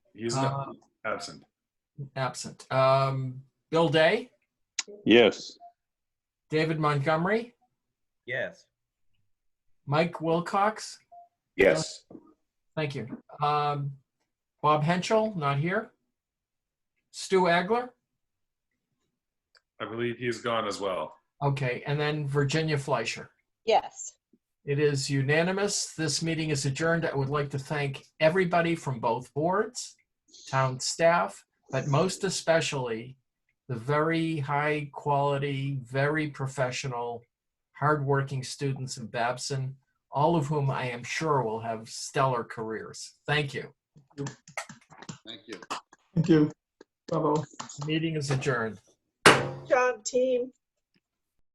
He's not Uh, absent. absent. Um, Bill Day, Yes. David Montgomery, Yes. Mike Wilcox. Yes. Thank you. Um, Bob Henschel, not here. Stu Agler. I believe he's gone as well. Okay, and then Virginia Fleischer. Yes. It is unanimous. This meeting is adjourned. I would like to thank everybody from both boards, town staff, but most especially the very high quality, very professional, hardworking students of Babson, all of whom I am sure will have stellar careers. Thank you. Thank you. Thank you. Bravo. Meeting is adjourned. Job, team.